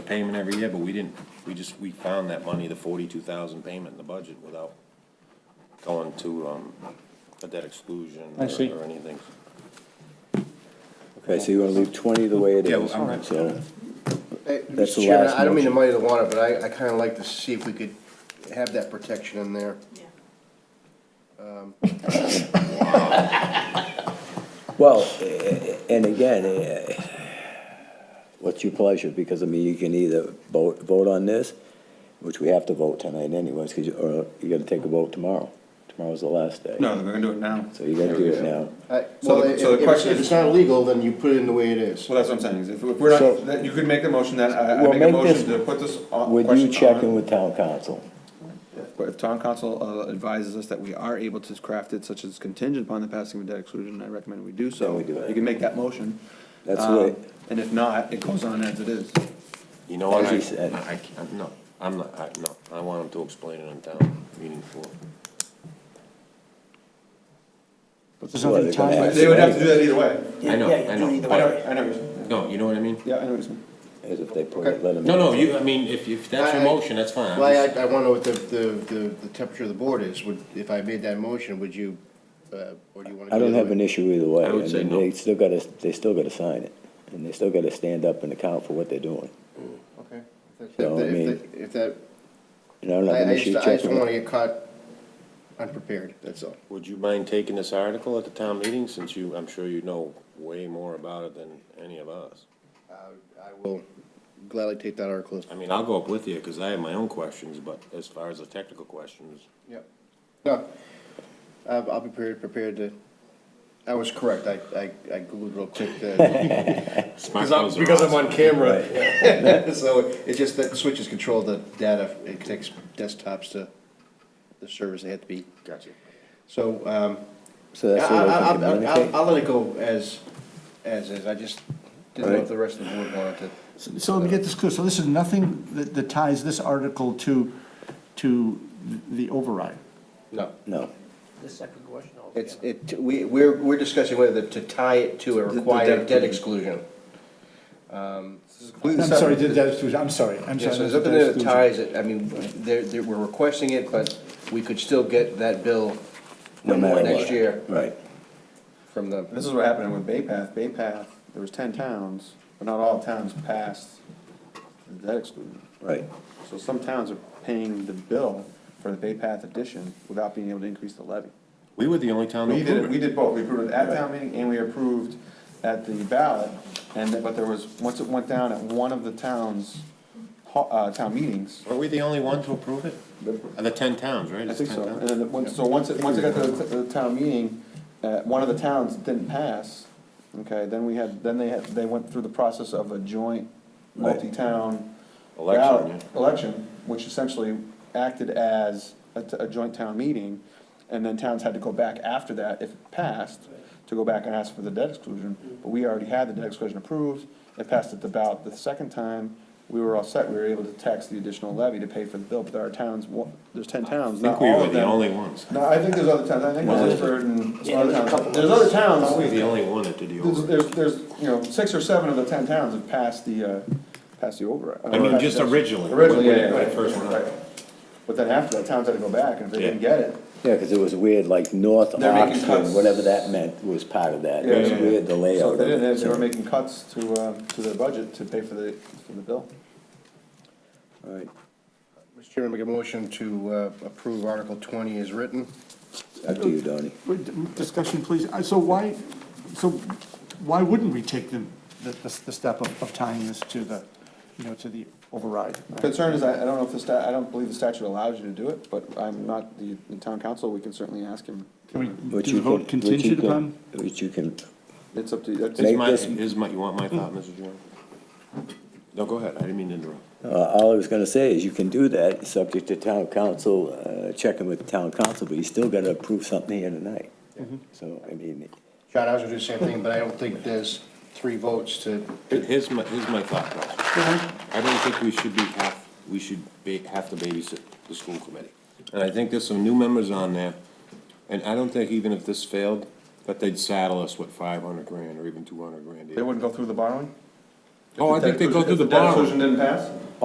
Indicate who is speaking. Speaker 1: payment every year, but we didn't, we just, we found that money, the forty-two thousand payment in the budget without going to, um, a debt exclusion or
Speaker 2: I see.
Speaker 1: or anything.
Speaker 3: Okay, so you want to leave 20 the way it
Speaker 1: Yeah,
Speaker 3: is,
Speaker 1: well, I'm-
Speaker 3: so,
Speaker 4: Hey,
Speaker 3: That's the
Speaker 4: Mr. Chairman,
Speaker 3: last
Speaker 4: I don't mean to
Speaker 3: motion.
Speaker 4: muddy the water, but I, I kinda like to see if we could have that protection in there.
Speaker 5: Yeah.
Speaker 3: well, eh, and again, eh, what's your pleasure? Because, I mean, you can either vote, vote on this, which we have to vote tonight anyways, 'cause you, or you gotta take a vote tomorrow. Tomorrow's the last day.
Speaker 6: No, we're gonna do it now.
Speaker 3: So you gotta do it now.
Speaker 4: I-
Speaker 6: So
Speaker 4: Well,
Speaker 6: the-
Speaker 4: if,
Speaker 6: so the
Speaker 4: if it's-
Speaker 6: question
Speaker 4: if
Speaker 6: is-
Speaker 4: it's not illegal, then you put it in the way it is.
Speaker 6: Well, that's what I'm saying, is if if we're
Speaker 3: So-
Speaker 6: not, that you could make the motion that, uh, I, I
Speaker 3: Well,
Speaker 6: make a
Speaker 3: make this-
Speaker 6: motion to put this on.
Speaker 3: Would you
Speaker 6: question
Speaker 3: check
Speaker 6: on-
Speaker 3: in with town council?
Speaker 6: But if town council uh, advises us that we are able to craft it such as contingent upon the passing of debt exclusion, I recommend we do so.
Speaker 3: Then we do it.
Speaker 6: You can make that motion.
Speaker 3: That's
Speaker 4: Uh,
Speaker 6: Um,
Speaker 3: the way,
Speaker 6: And if not, it goes on as it is.
Speaker 1: You know, and
Speaker 3: As
Speaker 1: I,
Speaker 3: he said.
Speaker 1: I, I- no, I'm not, I, no, I want him to explain it in town meeting floor.
Speaker 2: There's
Speaker 3: Well,
Speaker 2: nothing
Speaker 3: they're gonna
Speaker 2: tied.
Speaker 3: ask.
Speaker 6: They would have to do that either way.
Speaker 1: I know, I know,
Speaker 6: I know,
Speaker 1: but,
Speaker 6: I know what you're saying.
Speaker 1: no, you know what I mean?
Speaker 6: Yeah, I know what you're saying.
Speaker 3: as if they put it, let them.
Speaker 1: No, no, you, I mean, if, if that's your
Speaker 4: I- I-
Speaker 1: motion, that's fine. I'm
Speaker 4: Well,
Speaker 1: just-
Speaker 4: I, I wanna know what the, the, the the temperature of the board is, would, if I made that motion, would you, uh, or do you wanna?
Speaker 3: I don't have an issue either way.
Speaker 1: I would say
Speaker 3: mean,
Speaker 1: no.
Speaker 3: They still gotta, they still gotta sign it, and they still gotta stand up and account for what they're doing.
Speaker 4: Okay. If
Speaker 3: So, I
Speaker 4: that-
Speaker 3: mean-
Speaker 4: if that- If that,
Speaker 3: And I don't have
Speaker 4: I,
Speaker 3: an
Speaker 4: I
Speaker 3: issue
Speaker 4: just, I just
Speaker 3: checking
Speaker 4: don't wanna
Speaker 3: with.
Speaker 4: get caught unprepared, that's all.
Speaker 1: Would you mind taking this article at the town meeting, since you, I'm sure you know way more about it than any of us?
Speaker 4: I will gladly take that article.
Speaker 1: I mean, I'll go up with you, because I have my own questions, but as far as the technical questions,
Speaker 4: Yep. No, I'll, I'll be prepared, prepared to, I was correct, I, I, I Googled real quick. uh, Because I'm,
Speaker 1: smartphones are
Speaker 4: because I'm
Speaker 1: awesome.
Speaker 4: on camera. So it's just that switches control the data, it takes desktops to the servers, they have to be. Gotcha. So, um,
Speaker 3: So
Speaker 4: I,
Speaker 3: that's the way they
Speaker 4: I,
Speaker 3: can
Speaker 4: I'll-
Speaker 3: communicate.
Speaker 4: I'll, I'll let it go as, as is, I just didn't know
Speaker 3: Right.
Speaker 4: if the rest of the board wanted to.
Speaker 2: So so let me get this clear. So this is nothing that, that ties this article to, to the override.
Speaker 4: No.
Speaker 3: No,
Speaker 4: It's, it, we, we're, we're discussing whether to tie it to a
Speaker 6: The- the
Speaker 4: required
Speaker 6: debt
Speaker 4: debt exclusion. Um,
Speaker 2: I'm sorry, did that- I'm sorry, I'm
Speaker 4: Yeah,
Speaker 2: sorry.
Speaker 4: so there's
Speaker 2: that's-
Speaker 4: nothing that
Speaker 2: that's-
Speaker 4: ties it, I mean, they're, they're, we're requesting it, but we could still get that bill
Speaker 3: no matter what.
Speaker 4: next year
Speaker 3: Right.
Speaker 4: from the,
Speaker 6: This is what happened with Bay Path. Bay Path, there was ten towns, but not all towns passed the debt exclusion.
Speaker 3: Right,
Speaker 6: So some towns are paying the bill for the Bay Path addition without being able to increase the levy.
Speaker 1: we were the only town that
Speaker 6: We did, it-
Speaker 1: approved
Speaker 6: we
Speaker 1: it.
Speaker 6: did both, we approved it at town meeting and we approved at the ballot, and, then- but there was, once it went down at one of the towns, ho- uh, town meetings,
Speaker 1: Were we the only one to approve it? Of the ten towns, right?
Speaker 6: I
Speaker 1: It's
Speaker 6: think
Speaker 1: 10
Speaker 6: so,
Speaker 1: towns?
Speaker 6: and then, the- once- so once it, once it got to the, to the town meeting, uh, one of the towns didn't pass, okay, then we had, then they had, they went through the process of a joint
Speaker 3: Right.
Speaker 6: multi-town
Speaker 1: Election,
Speaker 6: ballot- election, which essentially acted as a, t- a joint town meeting, and then towns had to go back after that, if it passed, to go back and ask for the debt exclusion, but we already had the debt exclusion approved, it passed at the ballot the second time, we were all set, we were able to tax the additional levy to pay for the bill, but there are towns, one- there's ten towns,
Speaker 1: I think
Speaker 6: not
Speaker 1: we
Speaker 6: all
Speaker 1: were
Speaker 6: of
Speaker 1: the
Speaker 6: them.
Speaker 1: only ones.
Speaker 6: No, I think there's other towns, I think Wallingford and some other towns,
Speaker 1: I
Speaker 6: there's other
Speaker 1: think we were the
Speaker 6: towns,
Speaker 1: only one that did the
Speaker 6: there's,
Speaker 1: override.
Speaker 6: there's, there's, you know, six or seven of the ten towns have passed the, uh, passed the override.
Speaker 1: I mean,
Speaker 6: Uh,
Speaker 1: just
Speaker 6: passed-
Speaker 1: originally,
Speaker 6: Originally,
Speaker 1: when-
Speaker 6: yeah, yeah,
Speaker 1: when it
Speaker 6: right,
Speaker 1: first went
Speaker 6: right.
Speaker 1: up.
Speaker 6: But then after that, towns had to go back, and if they didn't
Speaker 1: Yeah.
Speaker 6: get it,
Speaker 3: yeah, because it was weird, like North
Speaker 6: They're making
Speaker 3: Oxford,
Speaker 6: cuts.
Speaker 3: whatever that meant was part of that.
Speaker 6: Yeah,
Speaker 3: It was
Speaker 6: yeah, yeah.
Speaker 3: weird, the
Speaker 6: so if
Speaker 3: layout
Speaker 6: they
Speaker 3: of
Speaker 6: didn't,
Speaker 3: it.
Speaker 6: they were
Speaker 3: so-
Speaker 6: making cuts to, uh, to their budget to pay for the, for the bill.
Speaker 3: Right.
Speaker 4: Mr. Chairman, make a motion to uh, approve Article twenty as written.
Speaker 3: Up to you, Donnie.
Speaker 2: Wait, Discussion, please. Uh, So why, so why wouldn't we take the, the, the step of of tying this to the, you know, to the override?
Speaker 6: Concern is, I, I don't know if the sta, I don't believe the statute allows you to do it, but I'm not the, the town council, we can certainly ask him,
Speaker 2: Can we
Speaker 3: Which
Speaker 2: do
Speaker 3: you
Speaker 2: the vote
Speaker 3: can- which you
Speaker 2: contingent
Speaker 3: can-
Speaker 2: upon?
Speaker 3: Which you can,
Speaker 6: it's up to, that's.
Speaker 1: Is
Speaker 3: Make
Speaker 1: my,
Speaker 3: this-
Speaker 1: is my, you want my thought, Mrs. Jordan? No, go ahead, I didn't mean to interrupt.
Speaker 3: uh, all I was gonna say is you can do that, subject to town council, uh, checking with town council, but you still gotta approve something here tonight. So, I mean,
Speaker 4: John, I was gonna do the same thing, but I don't think there's three votes to,
Speaker 1: Here's my, here's my thought process. I don't think we should be half, we should be, have to babysit the school committee. And I think there's some new members on there, and I don't think even if this failed, that they'd saddle us with five hundred grand or even two hundred grand.
Speaker 6: They wouldn't go through the borrowing?
Speaker 1: Oh, I think they go through the
Speaker 6: If debt exclusion
Speaker 1: borrowing.
Speaker 6: didn't pass?